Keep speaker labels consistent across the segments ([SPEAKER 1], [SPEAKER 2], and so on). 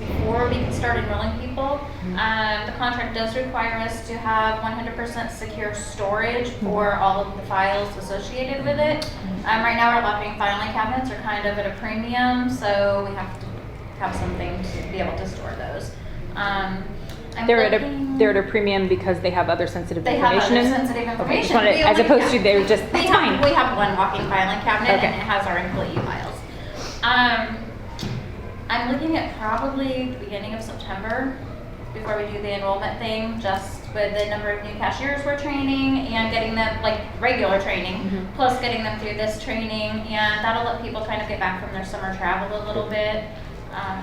[SPEAKER 1] before we can start enrolling people.
[SPEAKER 2] Mm-hmm.
[SPEAKER 1] Um, the contract does require us to have one hundred percent secure storage
[SPEAKER 2] Mm-hmm.
[SPEAKER 1] for all of the files associated with it. Um, right now, our locking filing cabinets are kind of at a premium, so we have to have something to be able to store those. Um, I'm
[SPEAKER 2] They're at
[SPEAKER 1] looking-
[SPEAKER 2] a, they're at a premium because they have other sensitive
[SPEAKER 1] They have
[SPEAKER 2] information
[SPEAKER 1] other
[SPEAKER 2] in them?
[SPEAKER 1] sensitive
[SPEAKER 2] Okay, just
[SPEAKER 1] information.
[SPEAKER 2] wanted-
[SPEAKER 1] We
[SPEAKER 2] As
[SPEAKER 1] only-
[SPEAKER 2] opposed to
[SPEAKER 1] yeah.
[SPEAKER 2] they're just,
[SPEAKER 1] We
[SPEAKER 2] that's
[SPEAKER 1] have, we
[SPEAKER 2] fine.
[SPEAKER 1] have one walking filing cabinet and
[SPEAKER 2] Okay.
[SPEAKER 1] it has our employee files. Um, I'm looking at probably the beginning of September before we do the enrollment thing, just with the number of new cashiers we're training and getting them, like, regular training,
[SPEAKER 2] Mhm.
[SPEAKER 1] plus getting them through this training, and that'll let people kind of get back from their summer travel a little bit. Um,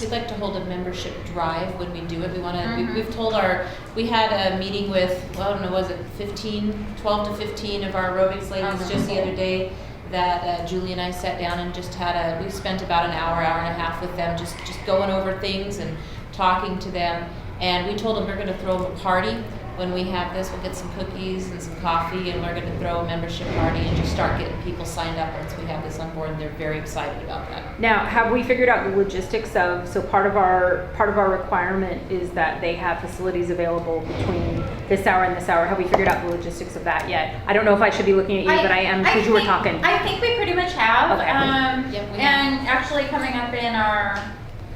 [SPEAKER 3] We'd like to hold a membership drive when we do it. We want to,
[SPEAKER 1] Mhm.
[SPEAKER 3] we, we've told our, we had a meeting with, well, I don't know, was it 15, 12 to 15 of our aerobics ladies
[SPEAKER 1] Uh-huh.
[SPEAKER 3] just the other day that uh, Julie and I sat down and just had a, we spent about an hour, hour and a half with them, just, just going over things and talking to them. And we told them we're going to throw a party when we have this. We'll get some cookies and some coffee and we're going to throw a membership party and just start getting people signed up once we have this on board. They're very excited about that.
[SPEAKER 2] Now, have we figured out the logistics of, so part of our, part of our requirement is that they have facilities available between this hour and this hour. Have we figured out the logistics of that yet? I don't know if I should be looking at you, but I am, because you were
[SPEAKER 1] think-
[SPEAKER 2] talking.
[SPEAKER 1] I think we pretty much have.
[SPEAKER 2] Okay.
[SPEAKER 1] Um,
[SPEAKER 3] Yep, we have.
[SPEAKER 1] and actually, coming up in our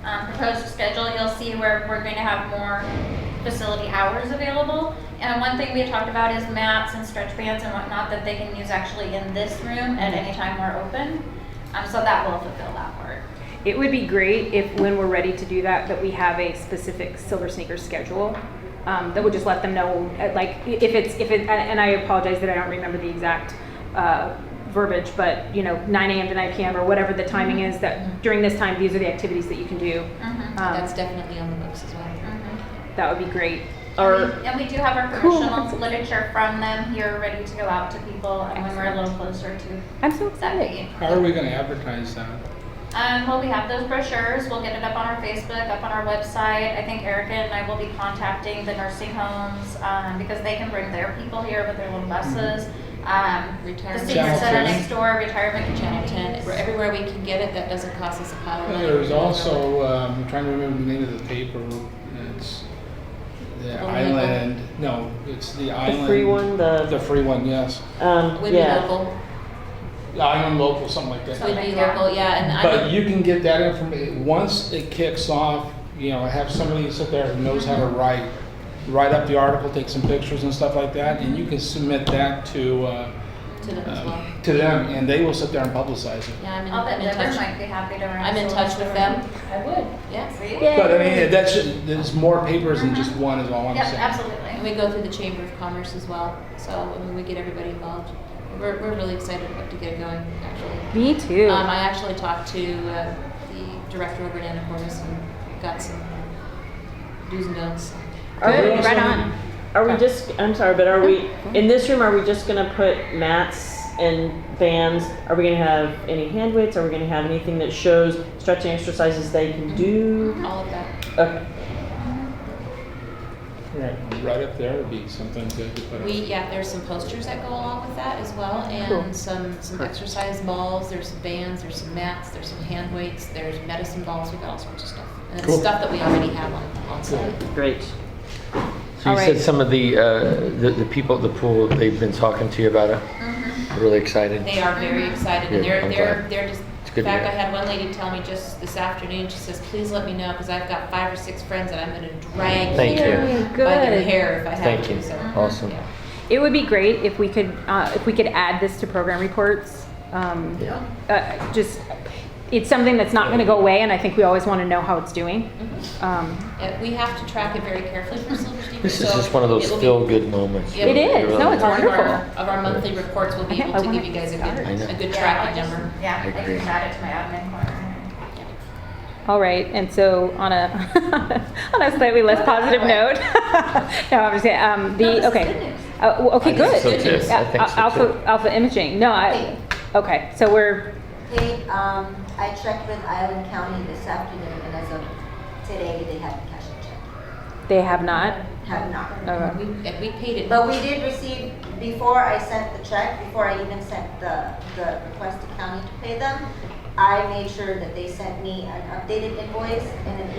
[SPEAKER 1] um, proposed schedule, you'll see where we're going to have more facility hours available. And one thing we had talked about is mats and stretch bands and whatnot that they can use actually in this
[SPEAKER 2] Mm-hmm.
[SPEAKER 1] room at any time we're open. Um, so that will fulfill that part.
[SPEAKER 2] It would be great if, when we're ready to do that, that we have a specific Silver Sneakers schedule. Um, that would just let them know, uh, like, i- if it's, if it, and- and I apologize that I don't remember the exact, uh, verbiage, but, you know, nine AM to nine PM or whatever the timing is, that during this time, these are the activities that you can do.
[SPEAKER 1] Mm-hmm.
[SPEAKER 2] Um,
[SPEAKER 3] That's definitely on the books as well.
[SPEAKER 2] that would be great.
[SPEAKER 1] and,
[SPEAKER 2] Or,
[SPEAKER 1] we, and we do have our
[SPEAKER 2] Cool.
[SPEAKER 1] promotional literature from them here ready to go out to people and when we're a little closer to
[SPEAKER 2] I'm so
[SPEAKER 1] that
[SPEAKER 2] excited.
[SPEAKER 1] date.
[SPEAKER 4] How are we gonna advertise that?
[SPEAKER 1] Um, well, we have those brochures. We'll get it up on our Facebook, up on our website. I think Erica and I will be contacting the nursing homes um, because they can bring their people here with their little buses. Um, the
[SPEAKER 3] Retirement.
[SPEAKER 1] senior center
[SPEAKER 4] Channel
[SPEAKER 1] next door, retirement
[SPEAKER 3] Channel 10,
[SPEAKER 1] communities.
[SPEAKER 3] where everywhere we can get it, that doesn't cost us a pile of
[SPEAKER 4] Well,
[SPEAKER 3] money.
[SPEAKER 4] There was also, um, I'm trying to remember the name of the paper, it's the
[SPEAKER 3] Local.
[SPEAKER 4] Island, no, it's the Island.
[SPEAKER 5] The free one,
[SPEAKER 4] The
[SPEAKER 5] the,
[SPEAKER 4] free one, yes.
[SPEAKER 5] um,
[SPEAKER 3] Would be
[SPEAKER 5] yeah.
[SPEAKER 3] local,
[SPEAKER 4] The Island Local, something like that.
[SPEAKER 3] would be
[SPEAKER 1] Yeah.
[SPEAKER 3] local, yeah, and
[SPEAKER 4] But
[SPEAKER 3] I,
[SPEAKER 4] you can get that information, once it kicks off, you know, have somebody sit there who knows how to write, write up the article, take some pictures and stuff like that, and you can submit that to, uh,
[SPEAKER 3] to them as well.
[SPEAKER 4] um, to them, and they will sit there and publicize it.
[SPEAKER 3] Yeah, I'm in,
[SPEAKER 1] I'll bet
[SPEAKER 3] I'm in
[SPEAKER 1] Deborah
[SPEAKER 3] touch,
[SPEAKER 1] might be happy to. run
[SPEAKER 3] I'm in
[SPEAKER 1] some
[SPEAKER 3] touch with them. I would.
[SPEAKER 1] stories.
[SPEAKER 3] Yes,
[SPEAKER 1] See?
[SPEAKER 2] Yeah.
[SPEAKER 4] But I mean, that's, just- there's more papers than just one is all I'm
[SPEAKER 1] Yep,
[SPEAKER 4] saying.
[SPEAKER 3] and
[SPEAKER 1] absolutely.
[SPEAKER 3] we go through the Chamber of Commerce as well, so, I mean, we get everybody involved. We're, we're really excited about to get it going, actually.
[SPEAKER 2] Me too.
[SPEAKER 3] Um, I actually talked to, uh, the director over at Anacortes and got some do's and don'ts.
[SPEAKER 5] Are we-
[SPEAKER 4] Good.
[SPEAKER 2] Right on. Oh,
[SPEAKER 5] Are we just, I'm sorry, but are we, in this room, are we just gonna put mats and bands? Are we gonna have any hand weights? Are we gonna have anything that shows stretching exercises they can do?
[SPEAKER 3] All of that.
[SPEAKER 5] Okay,
[SPEAKER 4] Right, right up there would be something good to put up.
[SPEAKER 3] We, yeah, there's some posters that go along with that as well,
[SPEAKER 2] Cool.
[SPEAKER 3] and some, some exercise balls, there's some bands, there's some mats, there's some hand weights, there's medicine balls, we've got all sorts of stuff. And it's
[SPEAKER 4] Cool.
[SPEAKER 3] stuff that we already have on, on site.
[SPEAKER 5] great.
[SPEAKER 6] So
[SPEAKER 2] All
[SPEAKER 6] you said
[SPEAKER 2] right.
[SPEAKER 6] some of the, uh, the the people at the pool, they've been talking to you about it?
[SPEAKER 1] Mhm.
[SPEAKER 6] Really excited?
[SPEAKER 3] Mm-hmm. They are very excited, and
[SPEAKER 6] Good,
[SPEAKER 3] they're,
[SPEAKER 6] I'm
[SPEAKER 3] they're,
[SPEAKER 6] glad.
[SPEAKER 3] they're just,
[SPEAKER 6] It's
[SPEAKER 3] in
[SPEAKER 6] good to
[SPEAKER 3] fact, I
[SPEAKER 6] hear.
[SPEAKER 3] had one lady tell me just this afternoon, she says, please let me know, because I've got five or six friends that I'm gonna drag
[SPEAKER 6] Thank
[SPEAKER 3] here
[SPEAKER 2] you.
[SPEAKER 3] by their
[SPEAKER 2] Good.
[SPEAKER 3] hair if I have
[SPEAKER 6] Thank
[SPEAKER 3] to,
[SPEAKER 6] you.
[SPEAKER 3] so.
[SPEAKER 6] Awesome.
[SPEAKER 3] yeah.
[SPEAKER 2] It would be great if we could, uh, if we could add this to program reports. Um,
[SPEAKER 6] Yeah.
[SPEAKER 2] uh, just, it's something that's not going to go away, and I think we always want to know how it's doing. Um,
[SPEAKER 3] Yeah, Mm-hmm. we have to track it very carefully for Silver Steeple,
[SPEAKER 6] This is
[SPEAKER 3] so
[SPEAKER 6] just one of those
[SPEAKER 3] it will be-
[SPEAKER 6] feel-good moments.
[SPEAKER 3] It
[SPEAKER 6] really.
[SPEAKER 2] is. No,
[SPEAKER 6] Really.
[SPEAKER 2] it's
[SPEAKER 3] part of our-
[SPEAKER 2] wonderful.
[SPEAKER 3] Of our monthly reports, we'll be
[SPEAKER 2] I-
[SPEAKER 3] able
[SPEAKER 2] I
[SPEAKER 3] to
[SPEAKER 2] wanna
[SPEAKER 3] give you guys a
[SPEAKER 2] start.
[SPEAKER 6] I
[SPEAKER 3] good,
[SPEAKER 6] know.
[SPEAKER 3] a good
[SPEAKER 1] Yeah, I'll
[SPEAKER 3] tracking
[SPEAKER 1] just-
[SPEAKER 3] number.
[SPEAKER 1] Yeah, I
[SPEAKER 6] I
[SPEAKER 1] can
[SPEAKER 6] agree.
[SPEAKER 1] add it to my admin corner.
[SPEAKER 2] all right, and so on a on a slightly less positive note. no, I'm just kidding. Um,
[SPEAKER 1] No, this
[SPEAKER 2] the
[SPEAKER 1] is
[SPEAKER 2] okay.
[SPEAKER 1] good news.
[SPEAKER 2] Uh, w- okay,
[SPEAKER 6] I think
[SPEAKER 2] good.
[SPEAKER 6] so too. I think
[SPEAKER 2] Uh,
[SPEAKER 6] so
[SPEAKER 2] alpha
[SPEAKER 6] too.
[SPEAKER 2] alpha imaging. No, I. Okay, so we're
[SPEAKER 7] They, um, I checked with Island County this afternoon, and as of today, they haven't cashed a check.
[SPEAKER 2] they have not. uh,
[SPEAKER 7] Have not.
[SPEAKER 2] Okay.
[SPEAKER 3] We, and we paid it.
[SPEAKER 7] But we did receive, before I sent the check, before I even sent the, the request to county to pay them, I made sure that they sent me an updated invoice and an